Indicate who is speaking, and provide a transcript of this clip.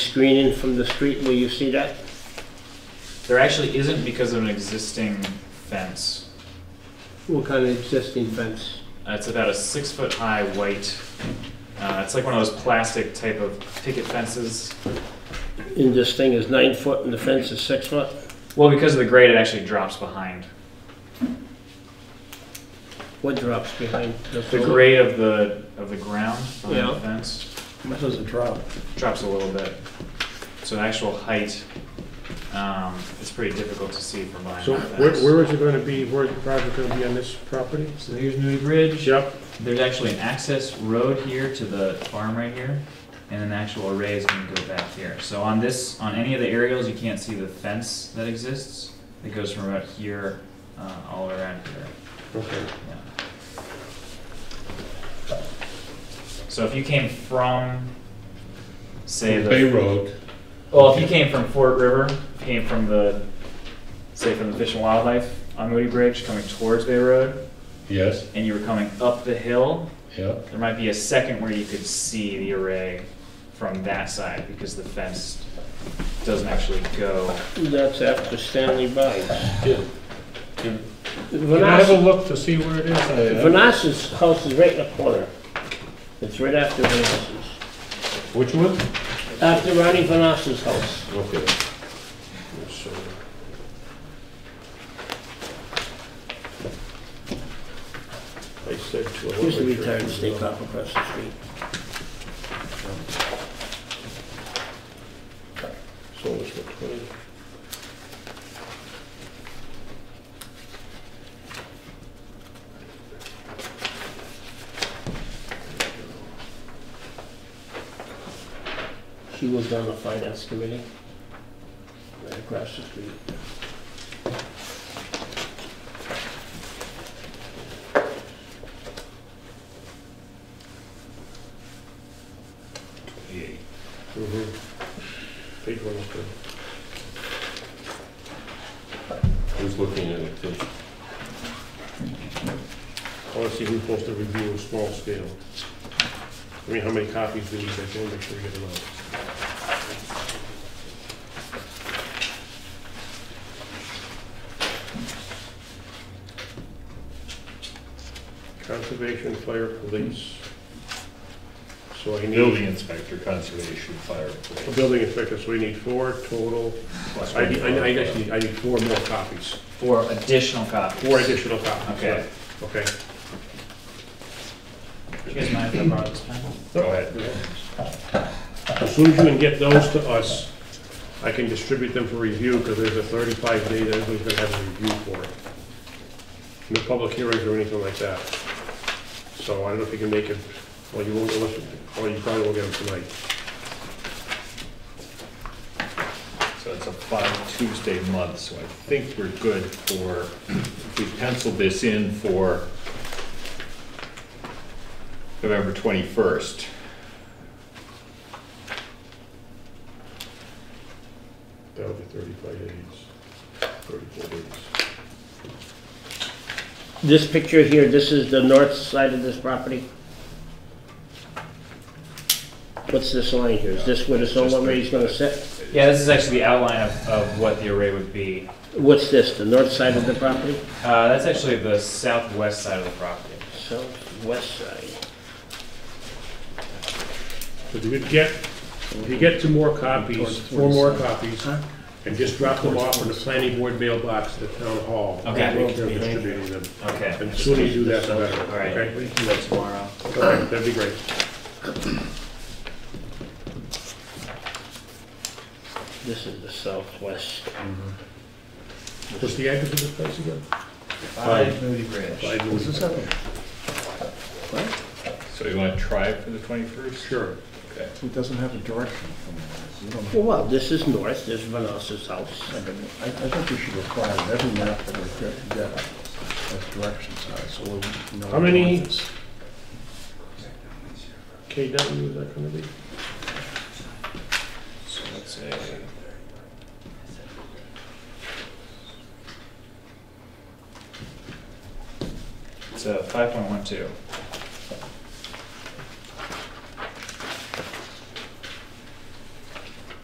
Speaker 1: screening from the street, will you see that?
Speaker 2: There actually isn't because of an existing fence.
Speaker 1: What kind of existing fence?
Speaker 2: Uh, It's about a six-foot-high white, uh, it's like one of those plastic type of picket fences.
Speaker 1: And this thing is nine foot and the fence is six foot?
Speaker 2: Well, because of the grade, it actually drops behind.
Speaker 1: What drops behind?
Speaker 2: The grade of the, of the ground on
Speaker 1: Yeah.
Speaker 2: the fence
Speaker 3: What does it drop?
Speaker 2: drops a little bit. So the actual height, um, it's pretty difficult to see from behind
Speaker 3: So
Speaker 2: that
Speaker 3: where,
Speaker 2: fence.
Speaker 3: where is it gonna be, where is the project gonna be on this property?
Speaker 2: So here's Newry Bridge.
Speaker 3: Yep.
Speaker 2: There's actually an access road here to the farm right here, and an actual array is gonna go back here. So on this, on any of the aerials, you can't see the fence that exists. It goes from about here, uh, all around here,
Speaker 3: Okay.
Speaker 2: yeah. So if you came from, say the.
Speaker 4: Bay Road,
Speaker 2: Well, if you came from Fort River, came from the, say from the Fish and Wildlife on Moody Bridge, coming towards Bay Road,
Speaker 4: yes,
Speaker 2: and you were coming up the hill,
Speaker 4: yeah,
Speaker 2: there might be a second where you could see the array from that side because the fence doesn't actually go.
Speaker 1: That's after Stanley buys.
Speaker 4: Yeah.
Speaker 3: Can I have a
Speaker 1: Vanassus,
Speaker 3: look to see where it is?
Speaker 1: Vanassus house is right in the corner. It's right after Vanassus.
Speaker 3: Which one?
Speaker 1: After Ronnie Vanassus house.
Speaker 3: Okay. I said to.
Speaker 1: Used to be tired of state cop across the street.
Speaker 3: So it's for twenty.
Speaker 1: She was on the finance committee. Right across the street.
Speaker 3: Mhm.
Speaker 1: Mm-hmm.
Speaker 3: Page one oh three.
Speaker 4: who's looking at it too?
Speaker 3: I wanna see who's supposed to review a small scale. I mean, how many copies do we get, I wanna make sure we get them out. Conservation, fire, police. So I need.
Speaker 4: Building inspector, conservation, fire.
Speaker 3: a Building inspector, so we need four total. I, need- I, I just need, I need four more copies,
Speaker 2: Four additional copies.
Speaker 3: four additional copies.
Speaker 2: Okay.
Speaker 3: Okay.
Speaker 2: Do you guys mind if I borrow this pen?
Speaker 4: Go ahead.
Speaker 3: As soon as you can get those to us, I can distribute them for review, because there's a thirty-five day that everybody's gonna have a review for it. No public hearings or anything like that. So I don't know if you can make it, well, you won't, unless, or you probably won't get them tonight.
Speaker 4: So it's a five Tuesday month, so I think we're good for, if we pencil this in for November twenty-first.
Speaker 3: That'll be thirty-five days, thirty-four days.
Speaker 1: This picture here, this is the north side of this property. What's this line here? Is this where the solar array's gonna sit?
Speaker 2: Yeah, this is actually the outline of, of what the array would be.
Speaker 1: What's this, the north side of the property?
Speaker 2: Uh, that's actually the southwest side of the property.
Speaker 1: Southwest side.
Speaker 3: If you could get, if you get two more copies, four more copies, and just drop them off in the planning board mailbox at town hall.
Speaker 2: Okay.
Speaker 3: We'll be distributing them.
Speaker 2: Okay,
Speaker 3: And the sooner you do that, the better.
Speaker 2: all right.
Speaker 3: okay?
Speaker 2: We can do that tomorrow.
Speaker 3: All right, that'd be great.
Speaker 1: This is the southwest.
Speaker 3: What's the address of this place again?
Speaker 2: Five Moody Bridge.
Speaker 3: What's this
Speaker 4: So you wanna try it for the twenty-first?
Speaker 3: Sure.
Speaker 4: Okay.
Speaker 5: It doesn't have a direction from there. You don't have-
Speaker 1: Well, wow, this is north, this is Vanessa's house.
Speaker 5: I, I think we should require that every map that we get, get as direction size, so we know.
Speaker 3: How many-
Speaker 5: what it is.
Speaker 3: KW, is that gonna be?
Speaker 2: So that's a. It's a five point one two.